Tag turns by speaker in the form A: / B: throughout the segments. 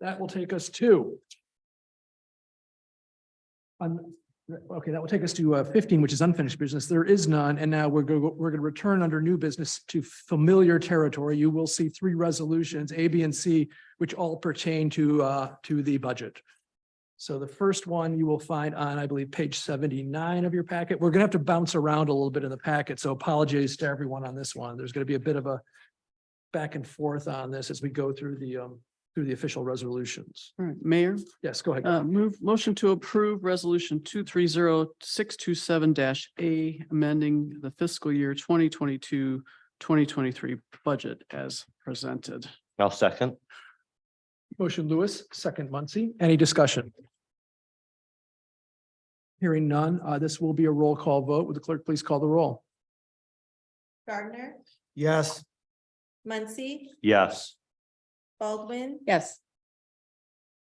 A: That will take us to. un- okay, that will take us to uh, fifteen, which is unfinished business. There is none, and now we're going, we're going to return under new business to familiar territory. You will see three resolutions, A, B, and C, which all pertain to uh, to the budget. So the first one you will find on, I believe, page seventy-nine of your packet. We're gonna have to bounce around a little bit in the packet, so apologies to everyone on this one. There's gonna be a bit of a back and forth on this as we go through the um, through the official resolutions.
B: All right, Mayor,
A: Yes, go ahead.
B: uh, move, motion to approve resolution two three zero six two seven dash A, amending the fiscal year 2022-2023 budget as presented.
C: I'll second.
A: Motion Lewis, second Muncy. Any discussion? Hearing none, uh, this will be a roll call vote. Would the clerk please call the roll?
D: Gardner,
E: yes,
D: Muncy,
C: Yes,
D: Baldwin,
F: Yes.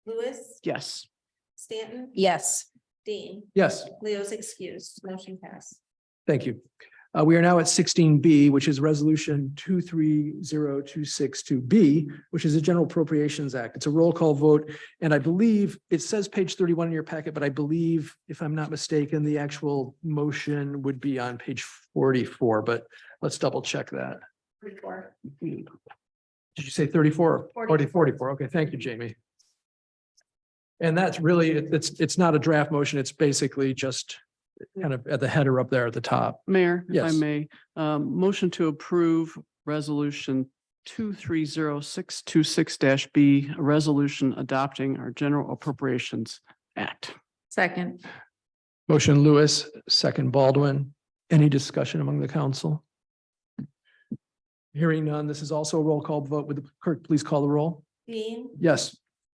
D: Lewis,
B: Yes,
D: Stanton,
F: Yes.
D: Dean.
A: Yes,
D: Leo's excused, motion passed.
A: thank you. Uh, we are now at sixteen B, which is resolution two, three, zero, two, six, two, B, which is the General Appropriations Act. It's a roll call vote. And I believe it says page thirty-one in your packet, but I believe, if I'm not mistaken, the actual motion would be on page forty-four, but let's double check that.
D: Report.
A: Did you say thirty-four?
D: Forty.
A: Forty, forty-four. Okay, thank you, Jamie. And that's really, it- it's, it's not a draft motion. It's basically just kind of at the header up there at the top.
B: Mayor, if I
A: Yes.
B: may, um, motion to approve resolution two three zero six two six dash B, a resolution adopting our general appropriations act.
F: Second.
A: Motion Lewis, second Baldwin. Any discussion among the council? Hearing none, this is also a roll call vote. Would the clerk please call the roll?
D: Dean,
A: Yes,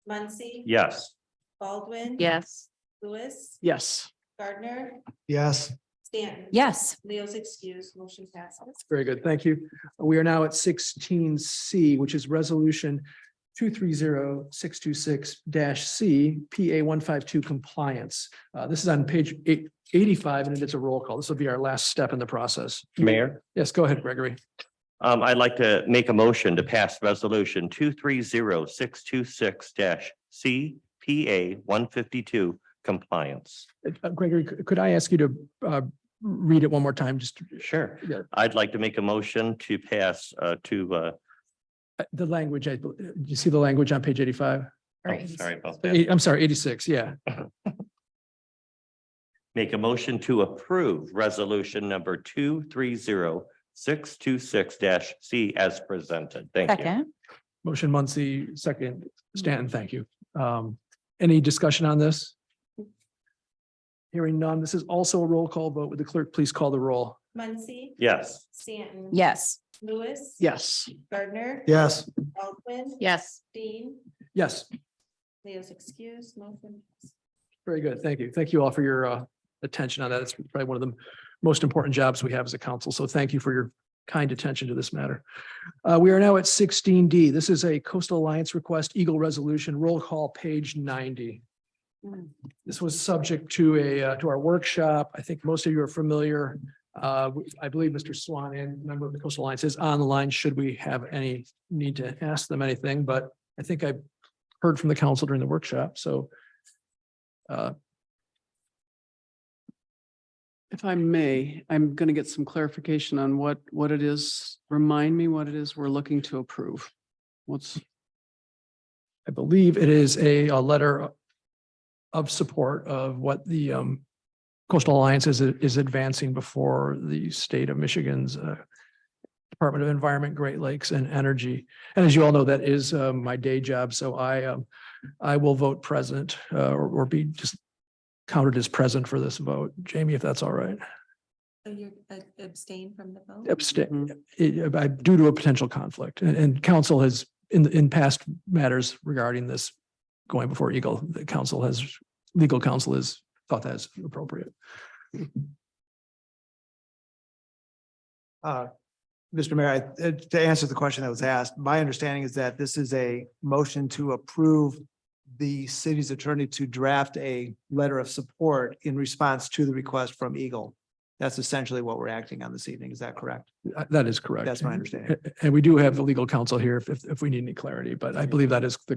D: Muncy.
C: yes,
D: Baldwin.
F: Yes.
D: Lewis,
B: Yes,
D: Gardner,
E: yes,
D: Stanton.
F: Yes.
D: Leo's excused, motion passes.
A: very good. Thank you. We are now at sixteen C, which is resolution two three zero six two six dash C, PA one five two compliance. Uh, this is on page eight- 85, and it's a roll call. This will be our last step in the process.
C: Mayor.
A: Yes, go ahead, Gregory.
C: Um, I'd like to make a motion to pass resolution two three zero six two six dash C P A one fifty-two compliance.
A: Uh, Gregory, c- could I ask you to, uh, read it one more time? Just
C: Sure.
A: Yeah.
C: I'd like to make a motion to pass uh to uh,
A: uh, the language, I, bel- do you see the language on page eighty-five?
C: oh, sorry about that.
A: Eight- I'm sorry, eighty-six, yeah.
C: Make a motion to approve resolution number two three zero six two six dash C as presented. Thank you.
F: Second.
A: Motion Muncy, second Stanton, thank you. Um, any discussion on this? Hearing none, this is also a roll call vote. Would the clerk please call the roll?
D: Muncy,
C: Yes,
D: Stanton.
F: Yes.
D: Lewis.
B: yes.
D: Gardner.
E: yes,
D: Baldwin,
F: Yes.
D: Dean,
A: Yes,
D: Leo's excused, motion. passes.
A: very good. Thank you. Thank you all for your, uh, attention on that. It's probably one of the most important jobs we have as a council. So thank you for your kind attention to this matter. Uh, we are now at sixteen D. This is a coastal alliance request, Eagle Resolution, roll call, page ninety. This was subject to a, uh, to our workshop. I think most of you are familiar. Uh, I believe Mr. Swan and member of the Coastal Alliance is on the line. Should we have any need to ask them anything? But I think I heard from the council during the workshop, so. Uh,
B: If I may, I'm going to get some clarification on what, what it is. Remind me what it is we're looking to approve. What's,
A: I believe it is a, a letter of support of what the, um, Coastal Alliance is, is advancing before the state of Michigan's, uh, Department of Environment, Great Lakes and Energy. And as you all know, that is, uh, my day job. So I, um, I will vote present, uh, or, or be just counted as present for this vote. Jamie, if that's all right.
D: So you're uh, abstain from the vote?
B: mm-hmm.
A: Abstain, it- I- uh, due to a potential conflict. And, and council has, in, in past matters regarding this going before Eagle, the council has, legal counsel has thought that's appropriate.
E: uh, Mr. Mayor, I- uh, to answer the question that was asked, my understanding is that this is a motion to approve the city's attorney to draft a letter of support in response to the request from Eagle. That's essentially what we're acting on this evening. Is that correct?
A: Uh, That is correct.
E: That's my understanding.
A: And we do have the legal counsel here if, if if we need any clarity, but I believe that is the